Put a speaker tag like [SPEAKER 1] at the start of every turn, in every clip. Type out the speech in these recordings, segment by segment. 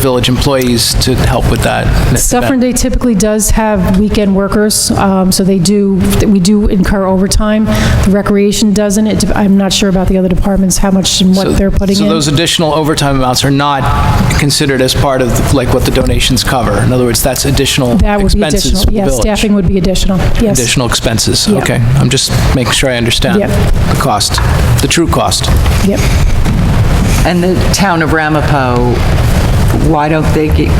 [SPEAKER 1] village employees to help with that.
[SPEAKER 2] Suffern Day typically does have weekend workers, um, so they do, we do incur overtime. The Recreation doesn't, It dep- I'm not sure about the other departments, how much and what they're putting
[SPEAKER 1] So
[SPEAKER 2] in.
[SPEAKER 1] those additional overtime amounts are not considered as part of, like, what the donations cover? In other words, that's additional
[SPEAKER 2] That would be
[SPEAKER 1] expenses for
[SPEAKER 2] additional,
[SPEAKER 1] the
[SPEAKER 2] yeah,
[SPEAKER 1] village?
[SPEAKER 2] staffing would be additional, yes.
[SPEAKER 1] Additional expenses,
[SPEAKER 2] Yeah.
[SPEAKER 1] okay. I'm just making sure I understand
[SPEAKER 2] Yep.
[SPEAKER 1] the cost, the true cost.
[SPEAKER 2] Yep.
[SPEAKER 3] And the town of Ramapo, why don't they get,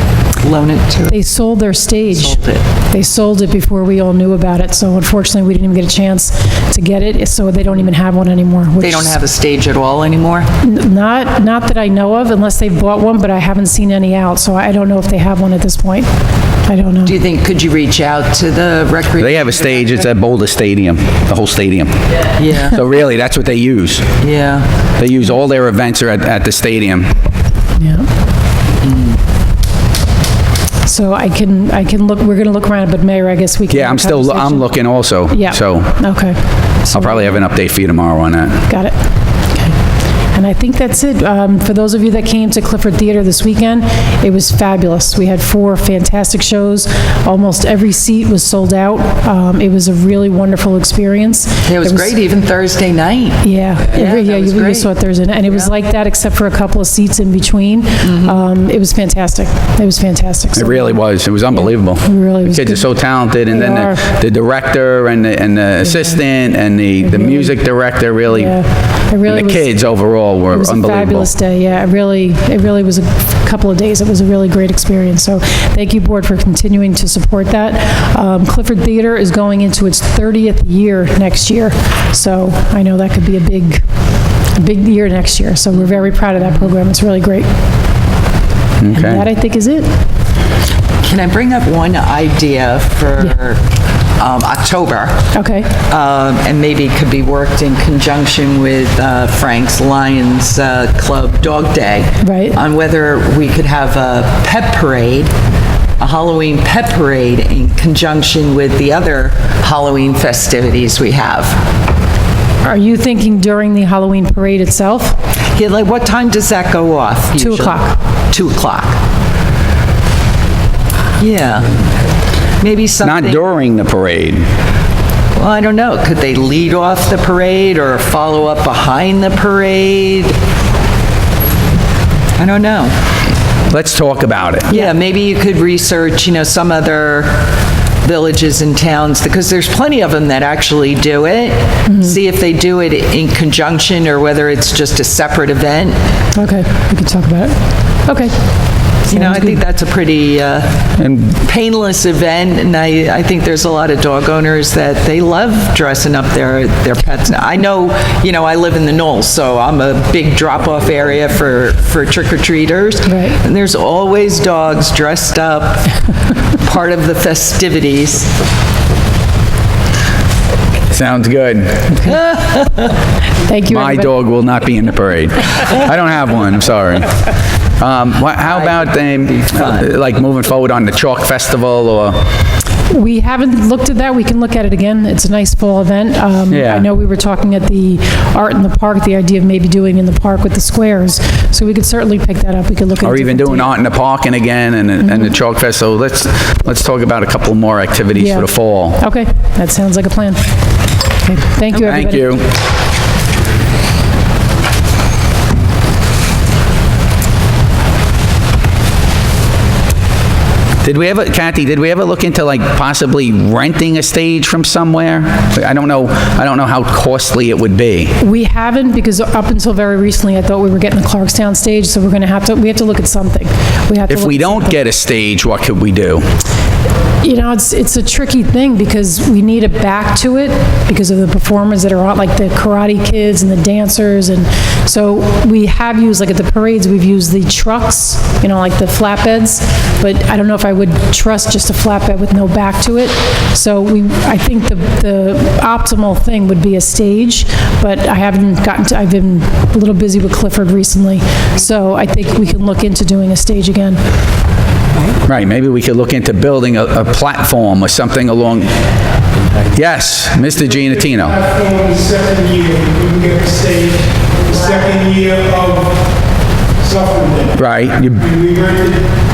[SPEAKER 3] loan it to
[SPEAKER 2] They sold their stage.
[SPEAKER 3] it?
[SPEAKER 2] They sold it before we all knew about it, so unfortunately, we didn't even get a chance to get it, so they don't even have one anymore.
[SPEAKER 3] They don't have a stage at all anymore?
[SPEAKER 2] Not, not that I know of, unless they bought one, but I haven't seen any out, so I don't know if they have one at this point. I don't know.
[SPEAKER 3] Do you think, could you reach out to the recre?
[SPEAKER 4] They have a stage, it's at Boulder Stadium, the whole stadium.
[SPEAKER 3] Yeah,
[SPEAKER 4] So really, that's what they use.
[SPEAKER 3] yeah.
[SPEAKER 4] They use all their events are at, at the stadium.
[SPEAKER 2] Yeah. So I can, I can look, we're going to look around, but Mayor, I guess we can.
[SPEAKER 4] Yeah, I'm
[SPEAKER 2] have a
[SPEAKER 4] still, I'm
[SPEAKER 2] conversation.
[SPEAKER 4] looking also.
[SPEAKER 2] Yeah.
[SPEAKER 4] So
[SPEAKER 2] Okay,
[SPEAKER 4] I'll probably have an update for you tomorrow on that.
[SPEAKER 2] got it. Okay. And I think that's it. Um, For those of you that came to Clifford Theater this weekend, it was fabulous. We had four fantastic shows. Almost every seat was sold out. Um, It was a really wonderful experience.
[SPEAKER 3] It was
[SPEAKER 2] There
[SPEAKER 3] great, even Thursday night.
[SPEAKER 2] Yeah,
[SPEAKER 3] Yeah,
[SPEAKER 2] every-
[SPEAKER 3] that
[SPEAKER 2] yeah,
[SPEAKER 3] was
[SPEAKER 2] you you
[SPEAKER 3] great.
[SPEAKER 2] saw it Thursday, night, and it was like that except for a couple of seats in between.
[SPEAKER 3] Mm-hmm.
[SPEAKER 2] Um, It was fantastic. It was fantastic.
[SPEAKER 4] It
[SPEAKER 2] So-
[SPEAKER 4] really was, it was unbelievable.
[SPEAKER 2] really was
[SPEAKER 4] Kids are
[SPEAKER 2] Mm-hmm. good.
[SPEAKER 4] so talented, and then
[SPEAKER 2] They
[SPEAKER 4] the- the director and the, and the assistant and the, the music director really, and
[SPEAKER 2] Mm-hmm. Yeah, it really
[SPEAKER 4] the
[SPEAKER 2] was.
[SPEAKER 4] kids overall were
[SPEAKER 2] It was a
[SPEAKER 4] unbelievable.
[SPEAKER 2] fabulous day, yeah. It really, it really was a couple of days. It was a really great experience. So thank you, Board, for continuing to support that. Um, Clifford Theater is going into its 30th year next year, so I know that could be a big, a big year next year. So we're very proud of that program. It's really great. And
[SPEAKER 4] Okay.
[SPEAKER 2] that, I think, is it.
[SPEAKER 3] Can I bring up one idea for um, October?
[SPEAKER 2] Okay.
[SPEAKER 3] um, and maybe could be worked in conjunction with uh, Frank's Lions uh, Club Dog Day.
[SPEAKER 2] Right.
[SPEAKER 3] On whether we could have a pet parade, a Halloween pet parade in conjunction with the other Halloween festivities we have.
[SPEAKER 2] Are you thinking during the Halloween parade itself?
[SPEAKER 3] Yeah, like, what time does that go off
[SPEAKER 2] Two
[SPEAKER 3] usually?
[SPEAKER 2] o'clock.
[SPEAKER 3] Two o'clock. Yeah. Maybe something.
[SPEAKER 4] Not during the parade.
[SPEAKER 3] Well, I don't know. Could they lead off the parade or follow up behind the parade? I don't know.
[SPEAKER 4] Let's talk about it.
[SPEAKER 3] Yeah, maybe you could research, you know, some other villages and towns, because there's plenty of them that actually do it. See if they do it in conjunction or whether it's just a separate event.
[SPEAKER 2] Okay, we can talk about it. Okay.
[SPEAKER 3] You know, I think that's a pretty uh, painless event, and I, I think there's a lot of dog owners that they love dressing up their, their pets. I know, you know, I live in the Knolls, so I'm a big drop-off area for, for trick-or-treaters.
[SPEAKER 2] Right.
[SPEAKER 3] And there's always dogs dressed up, part of the festivities.
[SPEAKER 4] Sounds good.
[SPEAKER 2] Thank you,
[SPEAKER 4] My
[SPEAKER 2] everybody.
[SPEAKER 4] dog will not be in the parade. I don't have one, I'm sorry. Um, wha- How about, um, like, moving forward on the Chalk Festival, or,
[SPEAKER 2] We haven't looked at that. We can look at it again. It's a nice fall event. Um,
[SPEAKER 4] Yeah.
[SPEAKER 2] I know we were talking at the Art in the Park, the idea of maybe doing in the park with the squares. So we could certainly pick that up. We could look at.
[SPEAKER 4] or
[SPEAKER 2] a
[SPEAKER 4] even
[SPEAKER 2] different
[SPEAKER 4] doing
[SPEAKER 2] date.
[SPEAKER 4] Art in the Parking again, and, and the Chalk Festival? Let's, let's talk about a couple more activities
[SPEAKER 2] Yeah.
[SPEAKER 4] for the fall.
[SPEAKER 2] Okay, that sounds like a plan. Okay, Thank you, everybody.
[SPEAKER 4] Thank you. Did we ever, Kathy, did we ever look into like possibly renting a stage from somewhere? I don't know, I don't know how costly it would be.
[SPEAKER 2] We haven't, because up until very recently, I thought we were getting the Clarkstown stage, so we're going to have to, we have to look at something. We have to
[SPEAKER 4] If
[SPEAKER 2] look
[SPEAKER 4] we
[SPEAKER 2] at
[SPEAKER 4] don't
[SPEAKER 2] something.
[SPEAKER 4] get a stage, what could we do?
[SPEAKER 2] You know, it's, it's a tricky thing because we need a back to it because of the performers that are on, like the karate kids and the dancers. And so we have used, like at the parades, we've used the trucks, you know, like the flatbeds. But I don't know if I would trust just a flatbed with no back to it. So we, I think the, the optimal thing would be a stage, but I haven't gotten to, I've been a little busy with Clifford recently. So I think we can look into doing a stage again.
[SPEAKER 4] Right, maybe we could look into building a, a platform or something along, yes, Mr. Gianatino.
[SPEAKER 5] platform the second year, we can get the stage, the second year of suffering.
[SPEAKER 4] Right, you
[SPEAKER 5] We rented